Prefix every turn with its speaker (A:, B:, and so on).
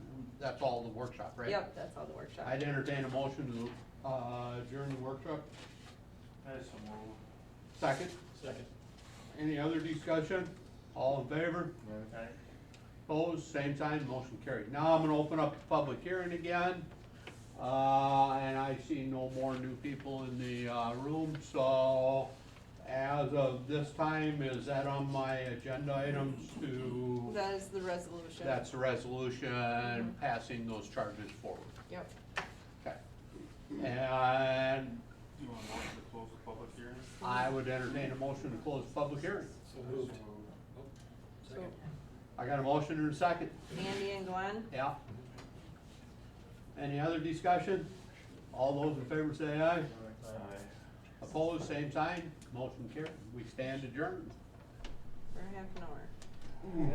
A: that's all the workshop, right?
B: Yep, that's all the workshop.
A: I'd entertain a motion to uh, adjourn the workshop.
C: That is some rule.
A: Second,
C: Second.
A: any other discussion? All in favor? Opposed, same sign, motion carried. Now I'm gonna open up the public hearing again. Uh, and I see no more new people in the, uh, room, so as of this time, is that on my agenda items to?
B: That is the resolution.
A: That's a resolution passing those charges forward.
B: Yep.
A: Okay. And
C: You want to motion to close the public hearing?
A: I would entertain a motion to close the public hearing.
C: So
D: moved.
B: So
A: I got a motion and a second.
B: Andy and Glenn?
A: Yeah. Any other discussion? All those in favor say aye. Opposed, same sign. Motion carried. We stand adjourned.
B: For half an hour.